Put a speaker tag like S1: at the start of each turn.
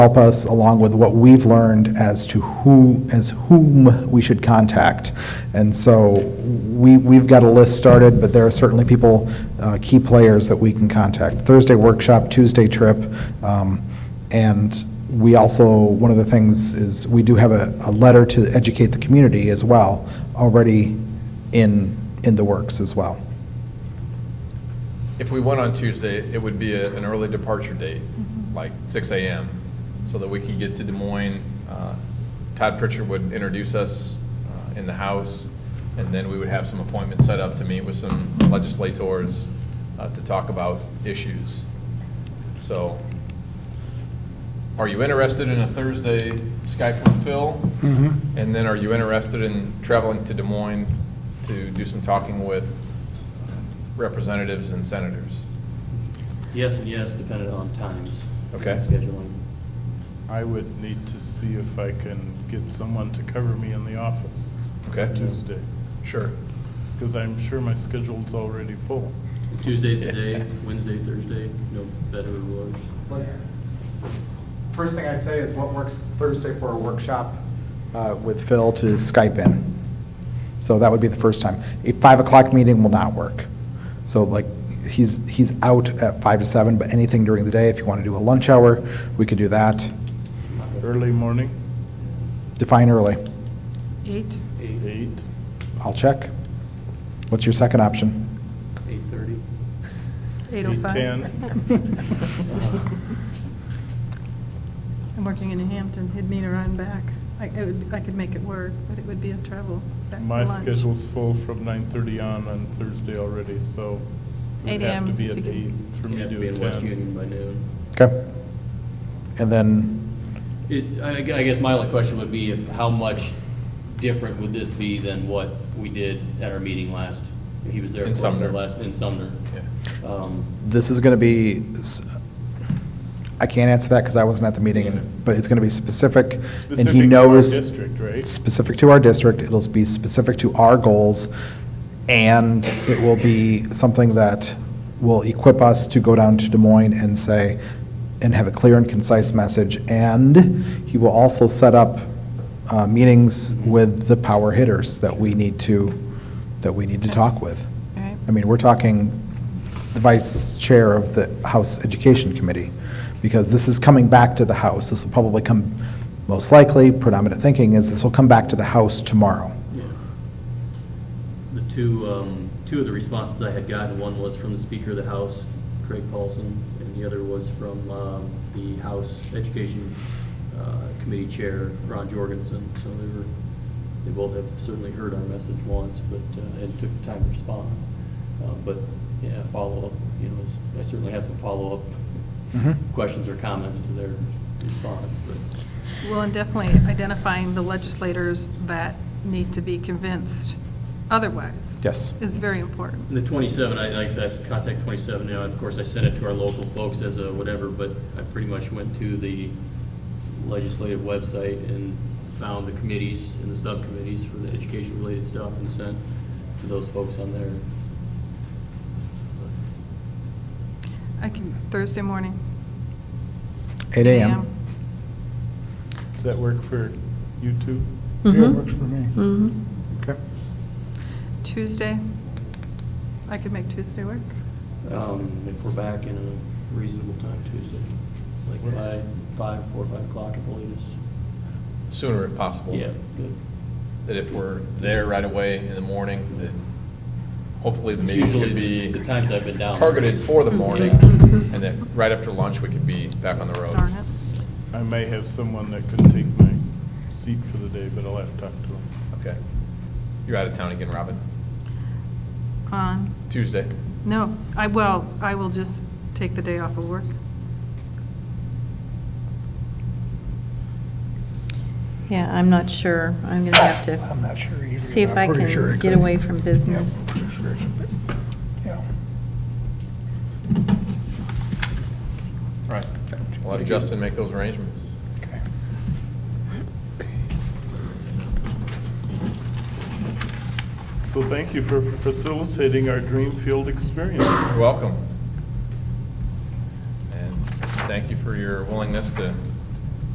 S1: help us along with what we've learned as to who, as whom we should contact. And so we, we've got a list started, but there are certainly people, uh, key players that we can contact. Thursday workshop, Tuesday trip, um, and we also, one of the things is, we do have a, a letter to educate the community as well, already in, in the works as well.
S2: If we went on Tuesday, it would be a- an early departure date, like 6 AM, so that we could get to Des Moines. Uh, Todd Pritchard would introduce us uh, in the House, and then we would have some appointments set up to meet with some legislators uh, to talk about issues. So, are you interested in a Thursday Skype with Phil? And then are you interested in traveling to Des Moines to do some talking with representatives and senators?
S3: Yes and yes, depending on times.
S2: Okay.
S3: Scheduling.
S4: I would need to see if I can get someone to cover me in the office.
S2: Okay.
S4: Tuesday,
S2: Sure.
S4: because I'm sure my schedule's already full.
S3: Tuesday's the day, Wednesday, Thursday, no better or worse.
S1: First thing I'd say is what works Thursday for a workshop uh, with Phil to Skype in. So that would be the first time. A 5 o'clock meeting will not work. So like, he's, he's out at 5 to 7, but anything during the day, if you want to do a lunch hour, we could do that.
S4: Early morning,
S1: Define early.
S5: Eight?
S4: eight.
S1: I'll check. What's your second option?
S3: Eight-thirty?
S5: Eight oh five?
S4: 8:10.
S5: I'm working in New Hampton, it'd mean a run back. I, it would, I could make it work, but it would be a travel back to
S4: My
S5: lunch.
S4: schedule's full from 9:30 on on Thursday already, so it would have
S5: 8
S4: to
S5: a.m.
S4: be at
S5: We could-
S4: eight for
S3: You
S4: me
S3: have to
S4: to
S3: be in West Union
S4: attend.
S3: by noon.
S1: Okay? And then,
S3: It, I, I guess my only question would be if, how much different would this be than what we did at our meeting last? He was there,
S2: In
S3: of course, in our
S2: Sumner.
S3: last, in Sumner. Um,
S1: this is going to be, s- I can't answer that because I wasn't at the meeting, and- but it's going to be specific, and
S4: Specific
S1: he
S4: to our
S1: knows.
S4: district, right?
S1: Specific to our district, it'll be specific to our goals, and it will be something that will equip us to go down to Des Moines and say, and have a clear and concise message, and he will also set up uh, meetings with the power hitters that we need to, that we need to talk with.
S5: All right.
S1: I mean, we're talking the vice chair of the House Education Committee, because this is coming back to the House. This will probably come, most likely, predominant thinking is this will come back to the House tomorrow.
S3: Yeah. The two, um, two of the responses I had gotten, one was from the Speaker of the House, Craig Paulson, and the other was from, um, the House Education, uh, Committee Chair, Ron Jorgensen. So they were, they both have certainly heard our message once, but, uh, and took time to respond. Uh, but, yeah, follow-up, you know, is- I certainly have some follow-up
S1: Mhm.
S3: questions or comments to their response, but.
S5: Well, and definitely identifying the legislators that need to be convinced otherwise.
S1: Yes.
S5: Is very important.
S3: The 27, I, like I said, I contact 27 now, of course, I sent it to our local folks as a whatever, but I pretty much went to the legislative website and found the committees and the subcommittees for the education-related stuff and sent to those folks on there.
S5: I can, Thursday morning.
S1: 8 AM.
S4: Does that work for you two?
S6: Yeah,
S5: Mm-hmm.
S6: it
S7: works for me.
S1: Okay.
S5: Tuesday, I could make Tuesday work.
S3: Um, If we're back in a reasonable time Tuesday, like by five, four, five o'clock at the latest.
S2: Sooner if possible.
S3: Yeah, good.
S2: That if we're there right away in the morning, that hopefully the
S3: It's
S2: meetings
S3: usually
S2: could be.
S3: the times I've been down.
S2: Targeted for the
S5: Mm-hmm.
S2: morning,
S3: Yeah.
S2: and then right after lunch, we could be back on the road.
S5: Darn it.
S4: I may have someone that could take my seat for the day, but I'll have to talk to them.
S2: Okay. You're out of town again, Robin.
S5: On,
S2: Tuesday.
S5: no, I, well, I will just take the day off of work.
S6: Yeah, I'm not sure. I'm going to have to
S7: I'm not sure either.
S6: see if
S7: I'm
S6: I
S7: pretty sure
S6: can
S7: it
S6: get
S7: could.
S6: away from business.
S7: Yeah, pretty sure it could, but, yeah.
S2: All right. We'll have Justin make those arrangements.
S7: Okay.
S4: So thank you for facilitating our dream field experience.
S2: You're welcome. And thank you for your willingness to